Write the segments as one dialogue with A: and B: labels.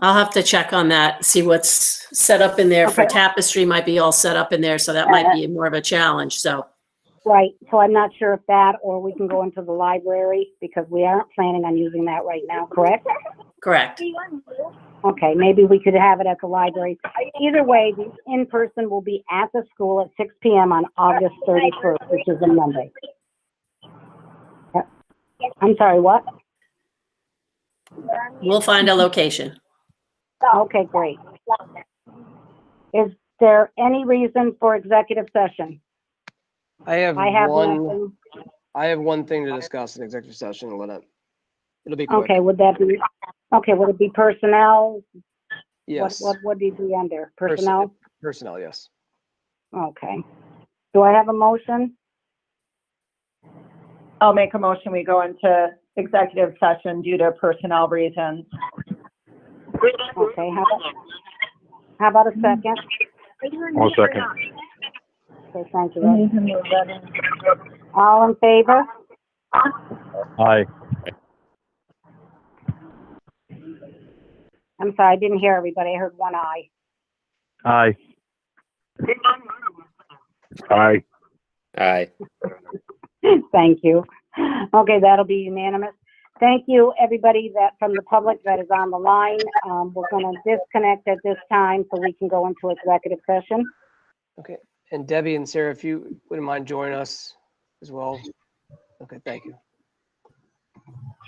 A: I'll have to check on that, see what's set up in there for
B: Okay.
A: tapestry might be all set up in there, so that might be more of a challenge, so.
B: Right, so I'm not sure if that, or we can go into the library, because we aren't planning on using that right now, correct?
A: Correct.
B: Okay, maybe we could have it at the library. Either way, the in-person will be at the school at six PM on August thirty-first, which is a Monday. Yep. I'm sorry, what?
A: We'll find a location.
B: Okay, great. Is there any reason for executive session?
C: I have
B: I have
C: one,
B: nothing.
C: I have one thing to discuss in executive session, and let it, it'll be quick.
B: Okay, would that be, okay, would it be personnel? What,
C: Yes,
B: what would it be under?
C: Person-
B: Personnel?
C: personnel, yes.
B: Okay. Do I have a motion?
D: I'll make a motion, we go into executive session due to personnel reasons.
B: Okay, how about, how about a second?
E: One second.
B: Okay, thank you, Ed. All in favor?
E: Aye.
B: I'm sorry, I didn't hear everybody. I heard one eye.
E: Aye. Aye.
F: Aye.
B: Thank you. Okay, that'll be unanimous. Thank you, everybody that, from the public that is on the line. Um, we're gonna disconnect at this time so we can go into executive session.
C: Okay, and Debbie and Sarah, if you wouldn't mind joining us as well. Okay, thank you.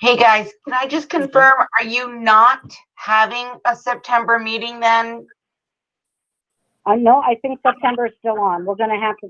G: Hey, guys, can I just confirm, are you not having a September meeting then?
B: Uh, no, I think September is still on. We're gonna have to